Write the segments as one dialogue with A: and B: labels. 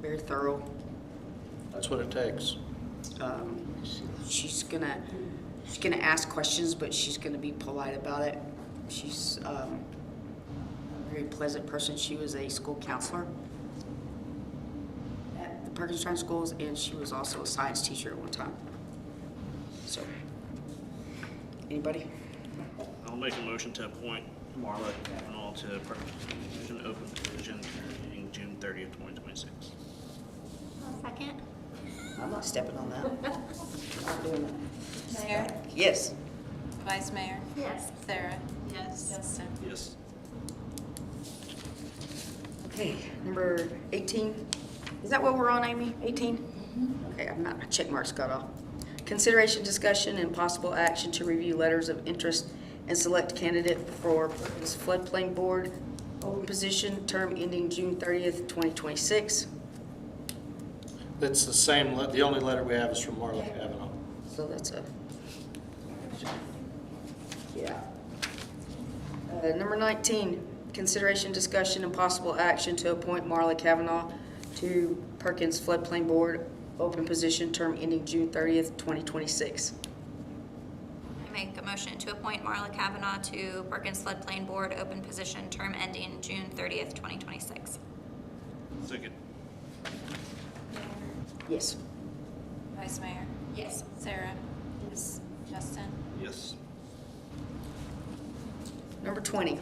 A: very thorough.
B: That's what it takes.
A: Um, she's gonna, she's gonna ask questions, but she's gonna be polite about it. She's um, a very pleasant person. She was a school counselor at the Perkinstein Schools, and she was also a science teacher at one time. So, anybody?
C: I'll make a motion to appoint Marla Kavanaugh to Perkins an open position ending June thirtieth, twenty twenty-six.
D: I'll second.
A: I'm not stepping on that. Not doing that.
E: Mayor,
A: Yes.
E: Vice Mayor,
D: Yes.
E: Sarah. Yes. Justin.
C: Yes.
A: Okay, number 18. Is that what we're on, Amy? 18? Okay, I'm not, my check marks got off. Consideration, discussion, and possible action to review letters of interest and select candidate for Perkins floodplain board open position, term ending June 30th, 2026.
B: It's the same, le- the only letter we have is from Marla Kavanaugh.
A: So that's a. Yeah. Uh, Number 19, consideration, discussion, and possible action to appoint Marla Kavanaugh to Perkins Floodplain Board, open position, term ending June 30th, 2026.
F: I make a motion to appoint Marla Kavanaugh to Perkins Floodplain Board, open position, term ending June 30th, 2026.
C: Second.
A: Yes.
E: Vice Mayor,
F: Yes.
E: Sarah. Yes. Justin.
C: Yes.
A: Number 20,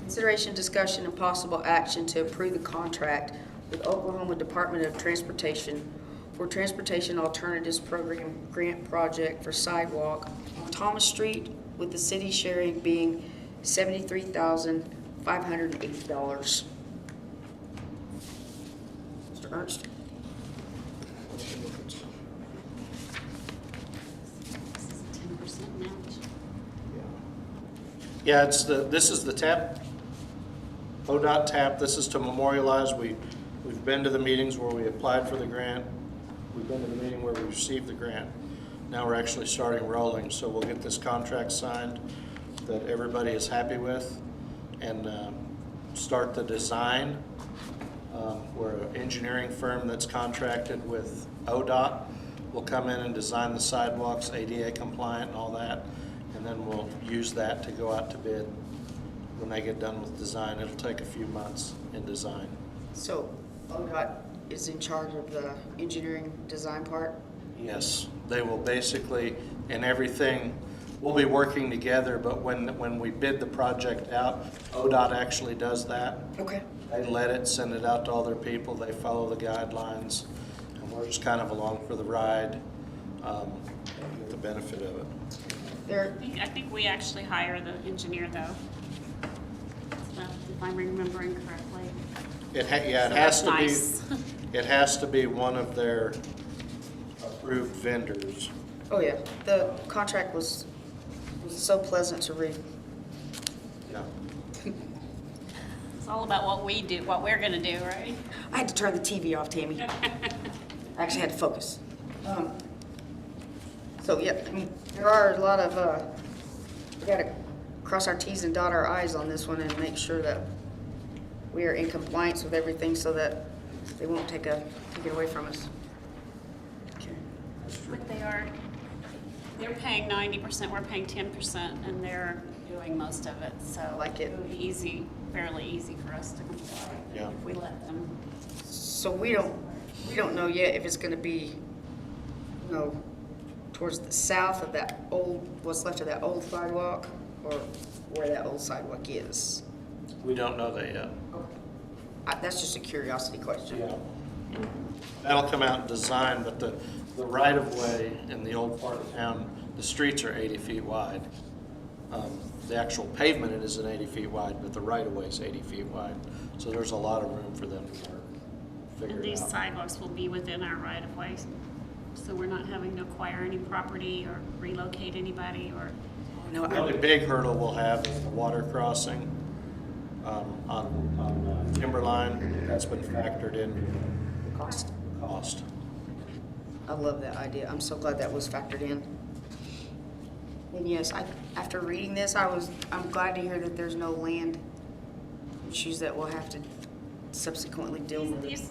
A: consideration, discussion, and possible action to approve the contract with Oklahoma Department of Transportation for Transportation Alternatives Program Grant Project for sidewalk on Thomas Street, with the city sharing being $73,580. Mr. Ernst?
B: Yeah, it's the, this is the tap, ODOT tap. This is to memorialize, we, we've been to the meetings where we applied for the grant. We've been to the meeting where we received the grant. Now we're actually starting rolling, so we'll get this contract signed that everybody is happy with and um, start the design. Um, We're an engineering firm that's contracted with ODOT. We'll come in and design the sidewalks, ADA compliant and all that, and then we'll use that to go out to bid when they get done with design. It'll take a few months in design.
A: So ODOT is in charge of the engineering design part?
B: Yes, they will basically, and everything, we'll be working together, but when, when we bid the project out, ODOT actually does that.
A: Okay.
B: They let it, send it out to all their people, they follow the guidelines, and we're just kind of along for the ride, um, with the benefit of it.
A: There,
G: I think, I think we actually hire the engineer though. So, If I'm remembering correctly.
B: It ha, yeah, it
G: So
B: has to
G: that's nice.
B: be, it has to be one of their approved vendors.
A: Oh, yeah, the contract was was so pleasant to read.
B: Yeah.
G: It's all about what we do, what we're gonna do, right?
A: I had to turn the TV off, Tammy. I actually had to focus. Um, So, yeah, I mean, there are a lot of, uh, we gotta cross our Ts and dot our Is on this one and make sure that we are in compliance with everything so that they won't take a, take it away from us. Okay.
G: But they are, they're paying ninety percent, we're paying ten percent, and they're doing most of it, so.
A: like it.
G: would be easy, fairly easy for us to comply.
B: Yeah.
G: If we let them.
A: So we don't, we don't know yet if it's gonna be, you know, towards the south of that old, what's left of that old sidewalk, or where that old sidewalk is.
B: We don't know that yet.
A: I- That's just a curiosity question.
B: Yeah. That'll come out in design, but the, the right-of-way in the old part of town, the streets are 80 feet wide. Um, The actual pavement it isn't 80 feet wide, but the right-of-way is 80 feet wide. So there's a lot of room for them to work, figure
G: And
B: it
G: these
B: out.
G: sidewalks will be within our right of ways, so we're not having to acquire any property or relocate anybody or.
A: No,
B: The
A: I,
B: only big hurdle we'll have is the water crossing um, on on, uh, Timberline. That's been factored in
A: cost.
B: cost.
A: I love that idea. I'm so glad that was factored in. And yes, I, after reading this, I was, I'm glad to hear that there's no land issues that we'll have to subsequently deal with.
G: These,